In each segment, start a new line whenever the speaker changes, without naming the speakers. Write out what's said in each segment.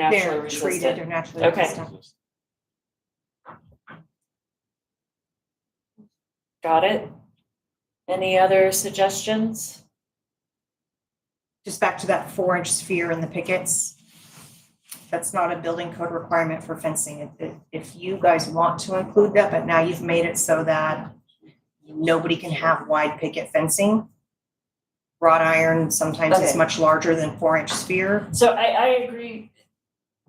naturally
They're treated
resistant.
or naturally
Okay.
resistant.
Got it? Any other suggestions?
Just back to that four inch sphere in the pickets. That's not a building code requirement for fencing. If- If, if you guys want to include that, but now you've made it so that nobody can have wide picket fencing. Wrought iron sometimes is
Okay.
much larger than four inch sphere.
So I, I agree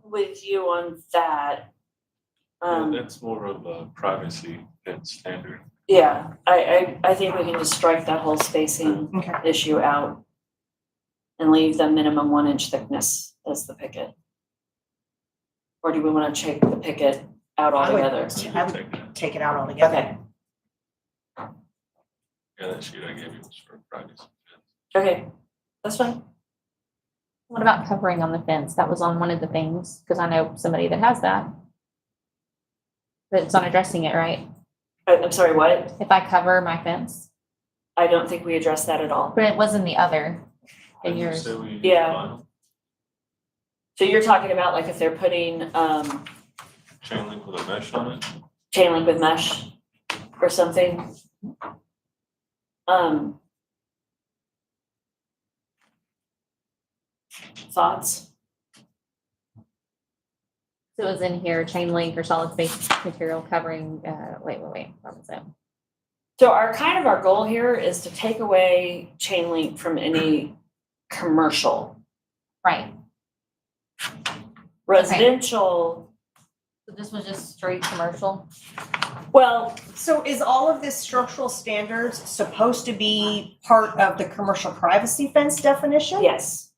with you on that.
Yeah,
Um,
That's more of a privacy than standard.
yeah, I, I, I think we can just strike that whole spacing
Okay.
issue out and leave the minimum one inch thickness as the picket. Or do we want to take the picket out
I would-
altogether?
So you
I would-
take that.
Take it out altogether.
Okay,
Yeah, that sheet I gave you was for privacy.
okay, that's fine.
What about covering on the fence? That was on one of the things, because I know somebody that has that. But it's on addressing it, right?
I, Uh, I'm sorry, what?
If I cover my fence,
I don't think we addressed that at all.
but it was in the other,
I
in
would
yours.
say we
Yeah.
combine
So you're talking about like if they're putting, um,
Chain link with a mesh on it.
chain link with mesh or something. Um. Thoughts?
So it was in here, chain link or solid space material covering, uh, wait, wait, wait, what was it?
So our kind of our goal here is to take away chain link from any commercial.
Right,
Residential,
so this was just straight commercial?
well,
So is all of this structural standards supposed to be part of the commercial privacy fence definition?
yes,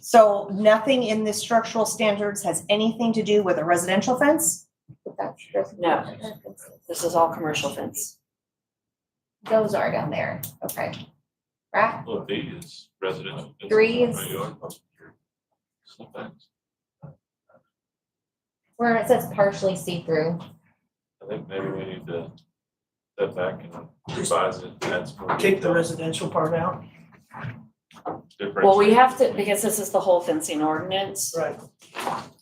So nothing in this structural standards has anything to do with a residential fence?
no, this is all commercial fence.
Those are down there, okay. Right?
Well, B is residential. It's
Three
not
is-
my yard. Sometimes.
Where it says partially see-through.
I think maybe we need to step back and revise it. That's more
Take the residential part out.
different.
Well, we have to, because this is the whole fencing ordinance.
Right.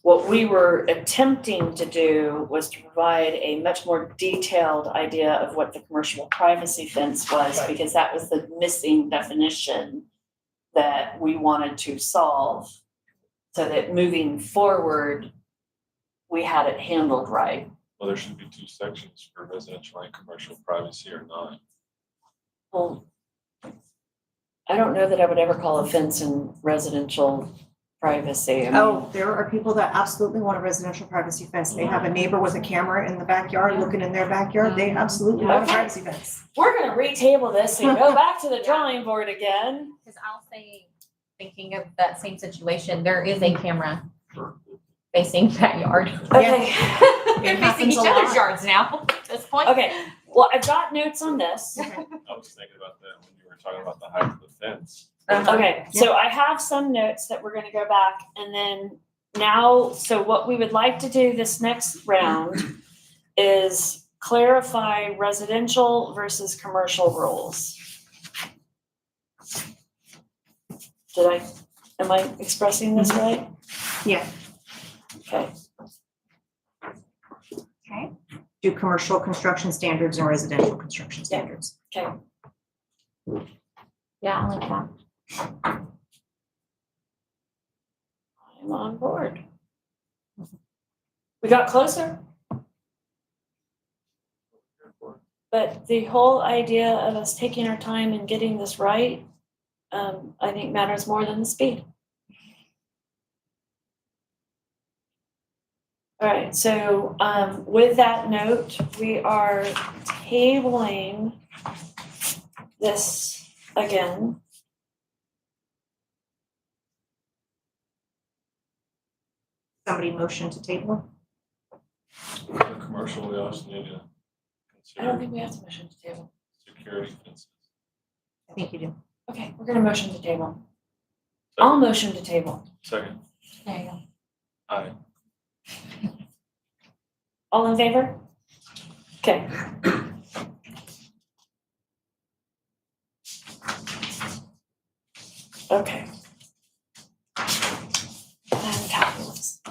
What we were attempting to do was to provide a much more detailed idea of what the commercial privacy fence was,
Right.
because that was the missing definition that we wanted to solve, so that moving forward, we had it handled right.
Well, there should be two sections for residential and commercial privacy or not.
Well, I don't know that I would ever call a fence in residential privacy. I mean,
Oh, there are people that absolutely want a residential privacy fence. They have a neighbor with a camera in the backyard, looking in their backyard. They absolutely want a
Okay.
privacy fence.
We're gonna retable this and go back to the drawing board again.
Because I'll say, thinking of that same situation, there is a camera facing that yard.
Okay,
They're facing
happens
each
a lot.
other's yards now at this point.
okay, well, I've got notes on this.
I was thinking about that when you were talking about the height of the fence.
Um,
Okay, so I have some notes that we're gonna go back and then now, so what we would like to do this next round is clarify residential versus commercial rules. Did I, am I expressing this right?
Yeah.
Okay,
Do commercial construction standards and residential construction standards.
okay.
Yeah, I like that.
I'm on board. We got closer, but the whole idea of us taking our time and getting this right, um, I think matters more than the speed. All right, so, um, with that note, we are tabling this again.
Somebody motion to table?
For commercial, we also need to
I don't
consider
think we have to motion to table.
security fences.
I think you do.
Okay, we're gonna motion to table. I'll motion to table.
Second,
There you go.
aye.
All in favor? Okay. Okay.